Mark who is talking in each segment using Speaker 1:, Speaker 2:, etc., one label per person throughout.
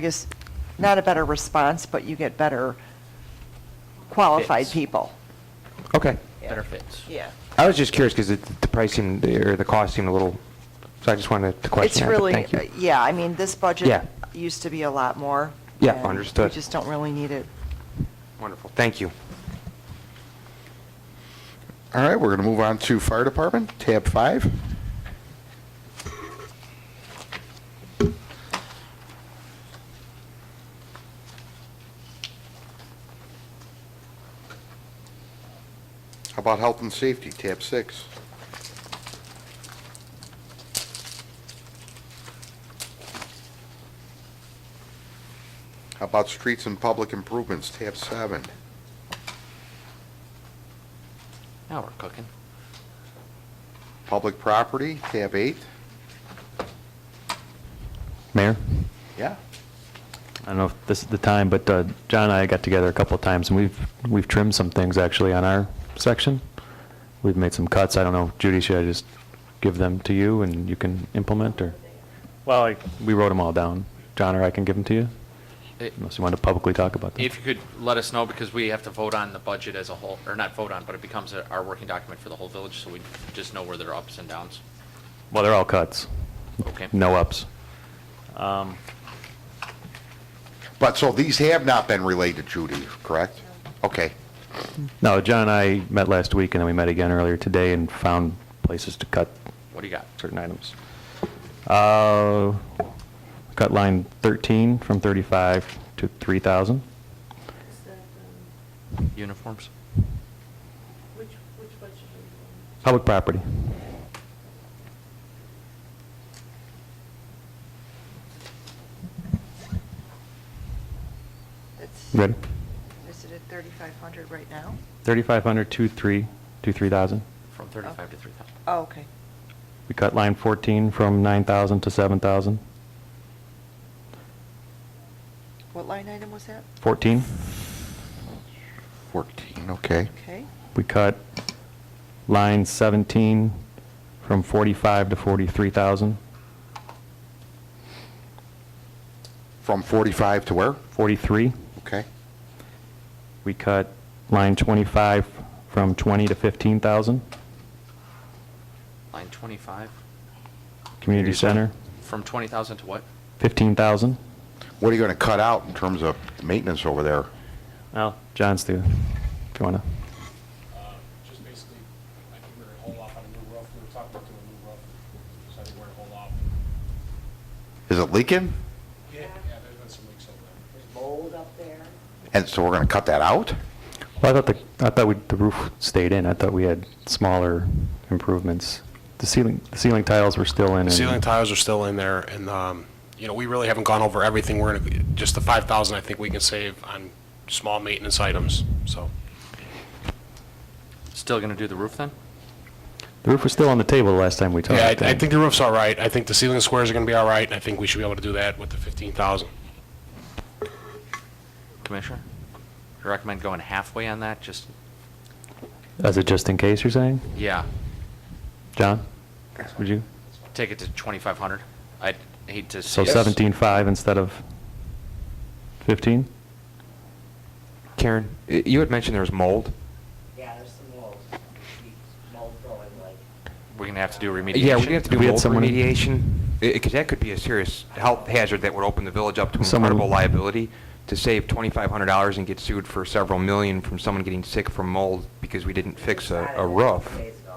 Speaker 1: I guess, not a better response, but you get better qualified
Speaker 2: Fits.
Speaker 1: people.
Speaker 3: Okay.
Speaker 2: better fits.
Speaker 1: Yeah.
Speaker 3: I was just curious because the the price seemed, or the cost seemed a little, so I just wanted to
Speaker 1: It's
Speaker 3: question that, but
Speaker 1: really, uh,
Speaker 3: thank you.
Speaker 1: yeah, I mean, this budget
Speaker 3: Yeah.
Speaker 1: used to be a lot more.
Speaker 3: Yeah,
Speaker 1: and
Speaker 3: understood.
Speaker 1: We just don't really need it.
Speaker 3: Wonderful, thank you.
Speaker 4: All right, we're going to move on to Fire Department, tab five. How about Health and Safety, tab six? How about Streets and Public Improvements, tab seven?
Speaker 2: Now we're cooking.
Speaker 4: Public Property, tab eight?
Speaker 5: Mayor,
Speaker 4: Yeah.
Speaker 5: I don't know if this is the time, but uh, John and I got together a couple of times, and we've, we've trimmed some things actually on our section. We've made some cuts. I don't know, Judy, should I just give them to you and you can implement, or? Well, I. We wrote them all down. John or I can give them to you,
Speaker 2: I-
Speaker 5: unless you want to publicly talk about them.
Speaker 2: If you could let us know, because we have to vote on the budget as a whole, or not vote on, but it becomes a- our working document for the whole village, so we just know where there are ups and downs.
Speaker 5: Well, they're all cuts.
Speaker 2: Okay. Um,
Speaker 5: No ups.
Speaker 4: But, so these have not been relayed to Judy, correct? Okay.
Speaker 5: No, John and I met last week, and then we met again earlier today and found places to cut
Speaker 2: What do you got?
Speaker 5: certain items. Uh, Cut line 13 from 35 to 3,000.
Speaker 6: Is that, um,
Speaker 2: Uniforms?
Speaker 6: which, which budget are
Speaker 5: Public property.
Speaker 1: It's-
Speaker 5: Ready?
Speaker 1: Is it at 3,500 right now?
Speaker 5: 3,500 to 3, to 3,000.
Speaker 2: From 35 to 3,000.
Speaker 1: Oh, okay.
Speaker 5: We cut line 14 from 9,000 to 7,000.
Speaker 1: What line item was that?
Speaker 5: 14,
Speaker 4: 14, okay.
Speaker 1: Okay.
Speaker 5: we cut line 17 from 45 to 43,000.
Speaker 4: From 45 to where?
Speaker 5: 43,
Speaker 4: Okay.
Speaker 5: we cut line 25 from 20 to 15,000.
Speaker 1: Oh.
Speaker 2: Line 25,
Speaker 5: Community center,
Speaker 2: from 20,000 to what?
Speaker 5: 15,000.
Speaker 4: What are you going to cut out in terms of maintenance over there?
Speaker 5: Well, John's the, if you want to.
Speaker 7: Uh, Just basically, I think we're gonna hold off on a new roof, we were talking about doing a new roof, so I think we're gonna hold off.
Speaker 4: Is it leaking?
Speaker 7: Yeah, there's been some leaks over there.
Speaker 6: mold up there?
Speaker 4: And so we're going to cut that out?
Speaker 5: Well, I thought the, I thought we, the roof stayed in. I thought we had smaller improvements. The ceiling, the ceiling tiles were still in. and-
Speaker 7: The ceiling tiles are still in there, and, um, you know, we really haven't gone over everything, we're gonna, just the five thousand I think we can save on small maintenance items, so.
Speaker 2: Still going to do the roof then?
Speaker 5: The roof was still on the table the last time we talked.
Speaker 7: Yeah, I, I think the roof's all right, I think the ceiling squares are gonna be all right, and I think we should be able to do that with the fifteen thousand.
Speaker 2: Commissioner? Do you recommend going halfway on that? Just,
Speaker 5: As a just in case, you're saying?
Speaker 2: yeah,
Speaker 5: John, would you?
Speaker 2: take it to 2,500. I'd hate to see.
Speaker 5: So
Speaker 2: us-
Speaker 5: 17.5 instead of 15?
Speaker 3: Karen, y- you had mentioned there was mold.
Speaker 6: Yeah, there's some mold, mold growing like.
Speaker 2: We're going to have to do remediation.
Speaker 3: Yeah, we're going to have to do
Speaker 5: We had
Speaker 3: mold
Speaker 5: someone-
Speaker 3: remediation, because that could be a serious health hazard that would open the village up to
Speaker 5: Someone-
Speaker 3: incredible liability. To save $2,500 and get sued for several million from someone getting sick from mold because we didn't fix a a roof.
Speaker 6: Days ago.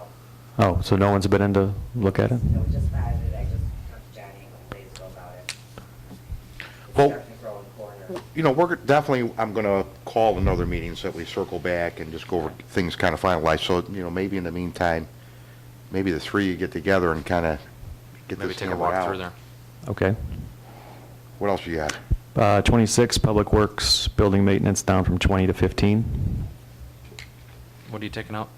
Speaker 5: Oh, so no one's been in to look at it?
Speaker 6: No, just spotted it, I just talked to Johnny a couple days ago about it. It's
Speaker 4: Well-
Speaker 6: starting to grow in corners.
Speaker 4: You know, we're definitely, I'm going to call another meeting so that we circle back and just go over things kind of finalized. So, you know, maybe in the meantime, maybe the three you get together and kind of get
Speaker 2: Maybe
Speaker 4: this
Speaker 2: take a
Speaker 4: hammered
Speaker 2: walk through
Speaker 4: out.
Speaker 2: there.
Speaker 5: Okay.
Speaker 4: What else you got?
Speaker 5: Uh, 26, public works, building maintenance down from 20 to 15.
Speaker 2: What are you taking out?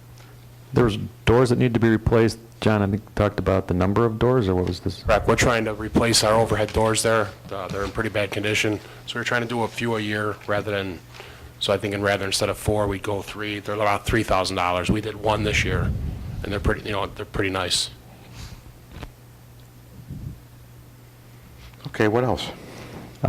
Speaker 5: There was doors that need to be replaced. John, I think, talked about the number of doors, or what was this?
Speaker 7: Correct, we're trying to replace our overhead doors there, Uh, they're in pretty bad condition, so we're trying to do a few a year rather than, so I think in rather instead of four, we go three, they're about three thousand dollars, we did one this year, and they're pretty, you know, they're pretty nice.
Speaker 4: Okay, what else?